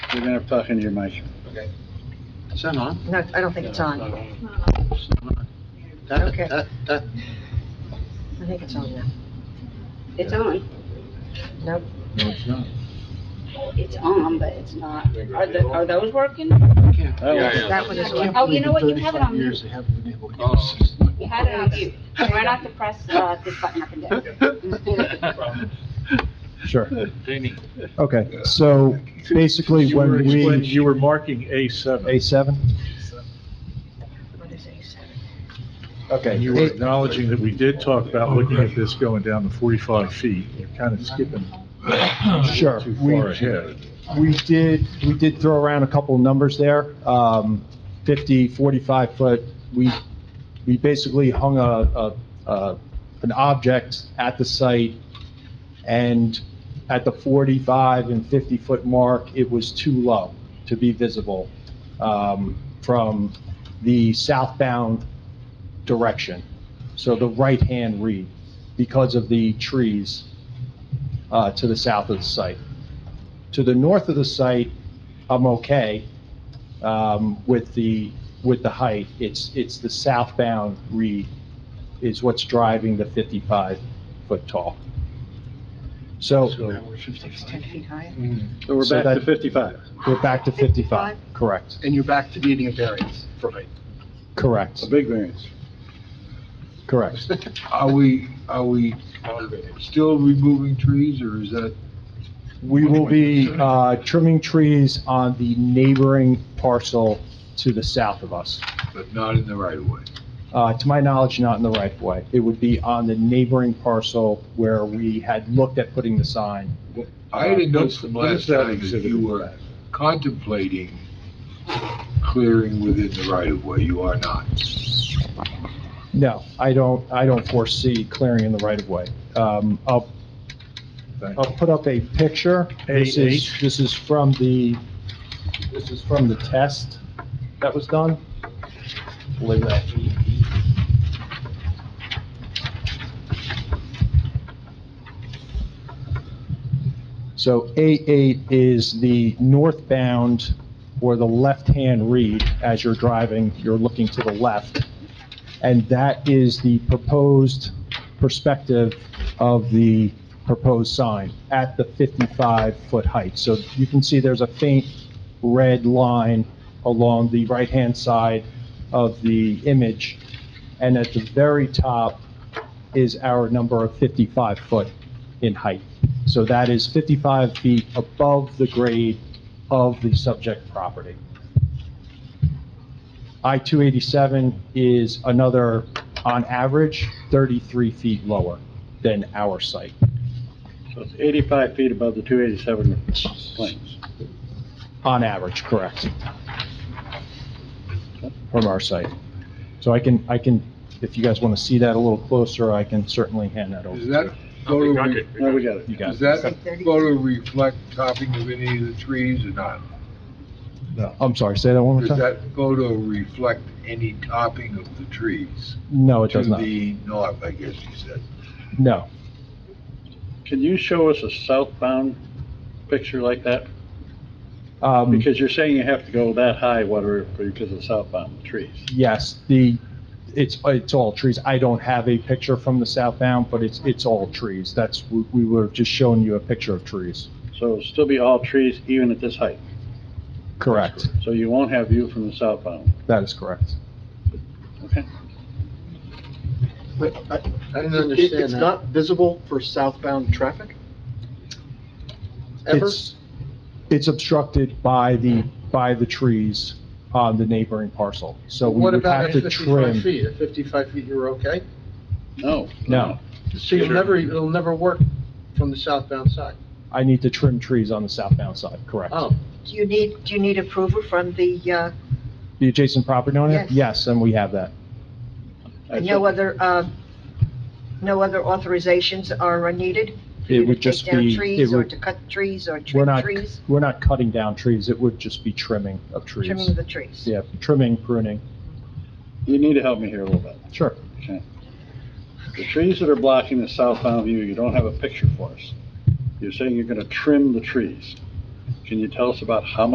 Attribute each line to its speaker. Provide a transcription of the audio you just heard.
Speaker 1: You're gonna have to talk into your mic.
Speaker 2: Okay.
Speaker 1: Is that on?
Speaker 3: No, I don't think it's on. I
Speaker 1: It's not on. That-
Speaker 3: Okay.
Speaker 1: that- that-
Speaker 3: think it's on now.
Speaker 4: It's on,
Speaker 3: Nope.
Speaker 1: No, it's not.
Speaker 4: it's on, but it's not. Are the, are those working?
Speaker 1: I can't-
Speaker 2: Yeah, yeah.
Speaker 3: That one is on.
Speaker 4: Oh, you know what? You have it on
Speaker 1: Thirty-five years, they haven't been able to give
Speaker 2: Oh.
Speaker 1: us.
Speaker 4: You had it on mute. Try not to press, uh, this button up and down.
Speaker 5: Sure.
Speaker 2: Jamie.
Speaker 5: Okay, so basically
Speaker 6: You were
Speaker 5: when
Speaker 6: explaining-
Speaker 5: we,
Speaker 6: You were marking A7.
Speaker 5: A7?
Speaker 3: What is A7?
Speaker 5: Okay.
Speaker 6: And you were
Speaker 5: A-
Speaker 6: acknowledging that we did talk about looking at this going down to 45 feet. You're kind of skipping
Speaker 5: Sure.
Speaker 6: too
Speaker 5: We-
Speaker 6: far ahead.
Speaker 5: We did, we did throw around a couple of numbers there, um, 50, 45 foot. We, we basically hung a, a- a, an object at the site, and at the 45 and 50-foot mark, it was too low to be visible um, from the southbound direction, so the right-hand read, because of the trees uh, to the south of the site to the north of the site, I'm okay um, with the, with the height. It's, it's the southbound read is what's driving the 55-foot tall. So
Speaker 1: So
Speaker 6: So-
Speaker 1: we're 55.
Speaker 3: 10 feet high?
Speaker 1: So we're
Speaker 5: So
Speaker 1: back to
Speaker 5: that-
Speaker 1: 55.
Speaker 5: we're back to 55, correct,
Speaker 1: And you're back to needing a variance for height.
Speaker 5: correct,
Speaker 1: A big variance.
Speaker 5: correct.
Speaker 7: Are we, are we still removing trees, or is that,
Speaker 5: We will be uh, trimming trees on the neighboring parcel to the south of us.
Speaker 7: but not in the right of way?
Speaker 5: Uh, To my knowledge, not in the right of way. It would be on the neighboring parcel where we had looked at putting the sign.
Speaker 7: I didn't know
Speaker 6: Uh, What's-
Speaker 7: from
Speaker 6: what is
Speaker 7: last
Speaker 6: that
Speaker 7: time that
Speaker 6: exhibit
Speaker 7: you
Speaker 6: in the
Speaker 7: were
Speaker 6: back?
Speaker 7: contemplating clearing within the right of way, you are not.
Speaker 5: No, I don't, I don't foresee clearing in the right of way. Um, I'll,
Speaker 6: Thank
Speaker 5: I'll put up a picture. This is,
Speaker 6: AH.
Speaker 5: this is from the, this is from the test that was done. Believe that. So A8 is the northbound or the left-hand read as you're driving, you're looking to the left. And that is the proposed perspective of the proposed sign at the 55-foot height. So you can see there's a faint red line along the right-hand side of the image. And at the very top is our number of 55 foot in height. So that is 55 feet above the grade of the subject property. I-287 is another, on average, 33 feet lower than our site.
Speaker 1: So it's 85 feet above the 287 planes.
Speaker 5: On average, correct. From our site. So I can, I can, if you guys want to see that a little closer, I can certainly hand that over.
Speaker 7: Does
Speaker 5: to
Speaker 7: that
Speaker 5: you.
Speaker 7: photo, re-
Speaker 1: No, we got it.
Speaker 5: You got
Speaker 7: does
Speaker 5: it.
Speaker 7: that photo reflect topping of any of the trees or not?
Speaker 5: No, I'm sorry, say that one more
Speaker 7: Does
Speaker 5: time?
Speaker 7: that photo reflect any topping of the trees?
Speaker 5: No, it does not.
Speaker 7: To the north, I guess you said.
Speaker 5: No.
Speaker 1: Can you show us a southbound picture like that?
Speaker 5: Um,
Speaker 1: Because you're saying you have to go that high, whatever, because of southbound trees.
Speaker 5: Yes, the, it's, it's all trees. I don't have a picture from the southbound, but it's, it's all trees. That's, we- we were just showing you a picture of trees.
Speaker 1: So it'll still be all trees even at this height.
Speaker 5: Correct.
Speaker 1: So you won't have view from the southbound.
Speaker 5: That is correct.
Speaker 1: Okay.
Speaker 8: But I-
Speaker 2: I didn't
Speaker 8: it- It's not visible for southbound traffic? Ever?
Speaker 5: It's, it's obstructed by the, by the trees on the neighboring parcel. So we
Speaker 8: What
Speaker 5: would
Speaker 8: about
Speaker 5: have
Speaker 8: at
Speaker 5: to
Speaker 8: 55
Speaker 5: trim.
Speaker 8: feet? At 55 feet, you're okay?
Speaker 1: No.
Speaker 5: No,
Speaker 8: So you'll never, it'll never work from the southbound side?
Speaker 5: I need to trim trees on the southbound side, correct.
Speaker 8: Oh,
Speaker 3: Do you need, do you need approval from the, uh,
Speaker 5: The adjacent property owner?
Speaker 3: Yes.
Speaker 5: Yes, and we have that.
Speaker 1: I
Speaker 3: no
Speaker 1: took-
Speaker 3: other, uh, no other authorizations are uh, needed? for
Speaker 5: It
Speaker 3: you to
Speaker 5: would
Speaker 3: take
Speaker 5: just
Speaker 3: down
Speaker 5: be- it
Speaker 3: Trees or
Speaker 5: would-
Speaker 3: to cut trees or
Speaker 5: We're
Speaker 3: trim
Speaker 5: not,
Speaker 3: trees?
Speaker 5: we're not cutting down trees. It would just be trimming of
Speaker 3: Trimming
Speaker 5: trees.
Speaker 3: the trees?
Speaker 5: Yeah, trimming, pruning.
Speaker 1: You need to help me here a little bit.
Speaker 5: Sure.
Speaker 1: The trees that are blocking the southbound view, you don't have a picture for us. You're saying you're gonna trim the trees. Can you tell us about how much?